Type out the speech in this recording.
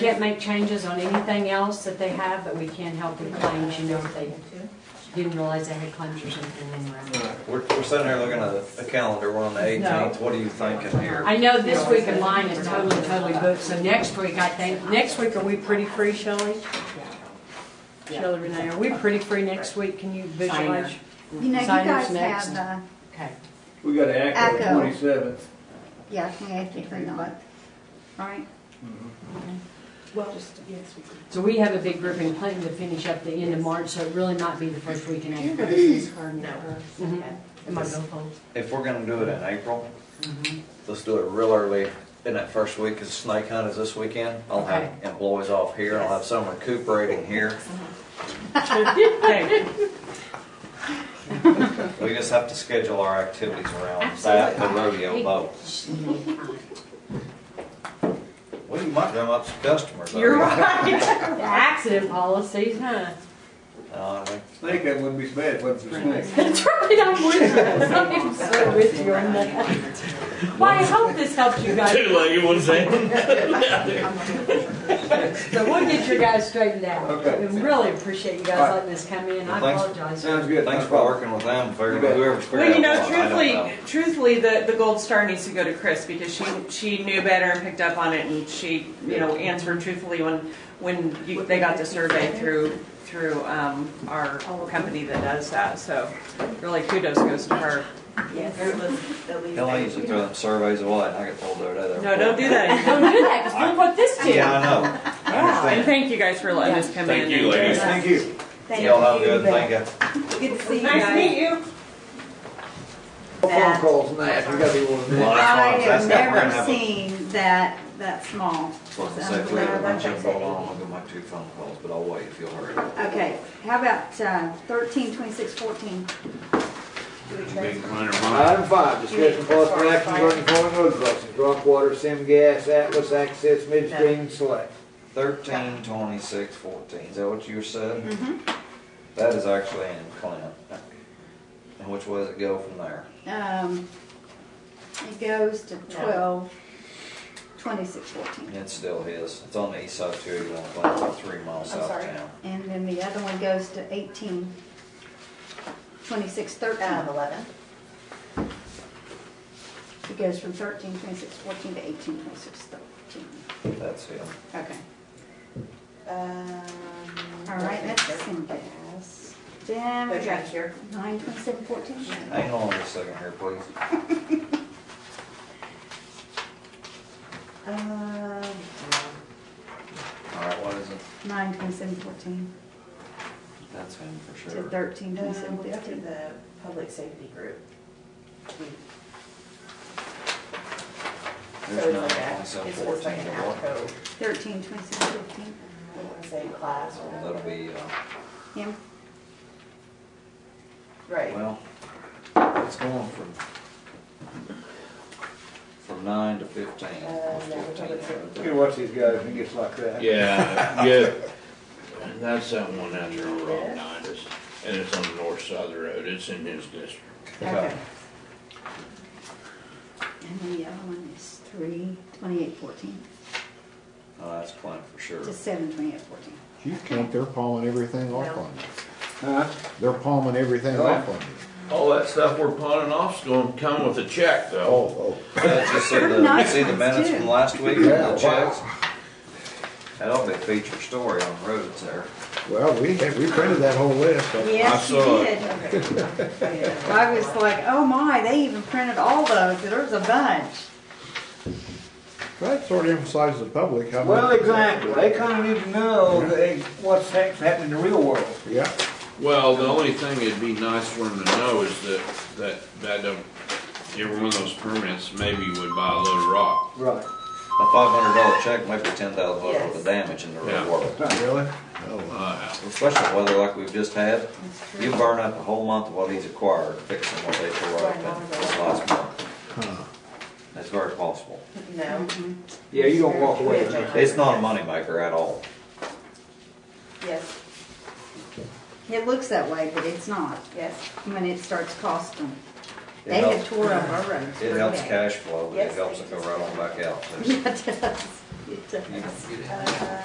Can't make changes on anything else that they have, but we can help with claims, you know, if they didn't realize they had claims or something in there. We're, we're sitting here looking at a- a calendar, we're on the eighteenth, what are you thinking here? I know this week of mine is totally, totally booked, so next week, I think, next week, are we pretty free, Shelley? Shelley Renee, are we pretty free next week? Can you visualize? You know, you Signers guys next. have, uh, Okay. We got to act on Echo. the twenty-seventh. yeah, we have to bring on, right? Mm-hmm. Well, just, yes, we could. So we have a big group in Clinton to finish up the end of March, so it really might be the first week in April. Mhm. Am I going home? If we're gonna do it in April, Mm-hmm. let's do it real early in that first week, because snake hunt is this weekend. I'll have Okay. employees off here, I'll have some recuperating here. Okay. We just have to schedule our activities around that, the rodeo boat. Well, you might drum up some customers. You're I mean. right. The Accident policies, huh? Uh, I think Snake, that wouldn't be so bad, wasn't it, snake? That's right, I'm with you. I'm so with you on that. Well, I hope this helps you guys. Two-legged one's in. So we'll get your guys straightened out. Okay. We really appreciate you All right. guys letting us come in. I Thanks. apologize. Sounds good. Thanks no for problem. working with them, You figuring bet. whoever's figuring Well, you know, out what, I don't truthfully, truthfully, the, the gold star needs to go to Chris because she, she knew better and picked up on it and she, you know, answered truthfully when, when you, they got the survey through, through, um, our company that does that, so really kudos goes to her. Yes. Or let's at least- Hell, I usually throw them surveys away, and I get told they're there. No, don't do that anymore. Don't do that, 'cause look what this did. Yeah, I know, I And understand. thank you guys for letting us come in. Thank you, and- ladies. Thank you. Thank Y'all have a you, good, but thank you. Good to see you Nice to guys. meet you. Phone calls and that, we got to be one of them. Well, that's I fine. That's have not- we're gonna never have a- seen that, that small. Um, Well, I was gonna say, if we have a bunch of them, I'll I'll get my two phone calls, but I'll wait if you'll hurry. Okay, how about uh, thirteen, twenty-six, fourteen? Big mine or mine. Item five, discussion possible action regarding following road crossings, Rockwater, Sim Gas, Atlas Access, Midstream, Select. Thirteen, twenty-six, fourteen, is that what you said? That is actually in Clint. And which way does it go from there? Um, it goes to twelve, twenty-six, fourteen. It's still his, it's on the east side of two eighty-one, Clint, about three miles south of town. And then the other one goes to eighteen, twenty-six, thirteen. eleven. It goes from thirteen, twenty-six, fourteen to eighteen, twenty-six, thirteen. That's him. Okay, all Um, All right, that's Sim Gas. Then we got here. nine, twenty-seven, fourteen. Hang on just a second here, please. Um, All right, what is it? Nine, twenty-seven, fourteen That's him for to sure. thirteen, no, twenty-seven, Um, we got to fifteen. the public safety group. So There's it's nine, like a- twenty-seven, it's- It's like fourteen, an and what? ALCO, Thirteen, twenty-seven, fifteen. I don't wanna say class or That'll be, uh, Him, Right, well, it's going from, from nine to fifteen. Uh, yeah, we probably Fifteen. You can watch these guys when it gets like that. Yeah, yeah. That's that one out there on Rock Nine, it's- and it's on the north side of the road, it's in his district. Okay. and then the other one is three, twenty-eight, fourteen Oh, that's Clint for sure. to seven, twenty-eight, fourteen. You think they're palming everything off on you. Huh? They're palming everything Oh, yeah. off on you. All that stuff we're pawning off's gonna come with a check though. Oh, Uh, Did you see the, you Nice see the ones, minutes too. from last week, the Yeah, wow. checks? That'll be a feature story on roads there. oh, well, we had, we printed that whole list. but- Yes, you saw did. I was like, oh my, they even printed all those, there was a bunch. That sort of emphasizes the public how. Well, much- exactly. They kind of need to know that what's heck's happening in the real world. Yeah, Well, the only thing it'd be nice for him to know is that, that, that, don't- every one of those permits maybe would buy a load of rock. Right. A five hundred dollar check might be ten thousand dollars worth of Yes. damage in the real Yeah. world. really? Oh, Uh, Especially weather like we've just had, you burn up a whole month of what he's acquired fixing what they tore up in this last month. huh. That's very possible. no, Yeah, you don't walk away from it. It's not a moneymaker at all. yes, It looks that way, but it's not, yes, when it starts costing. They It had helps, tore up our roads. it helps cash flow, but it Yes, helps they it go right on back out. Yeah, it does. It does. You- Uh,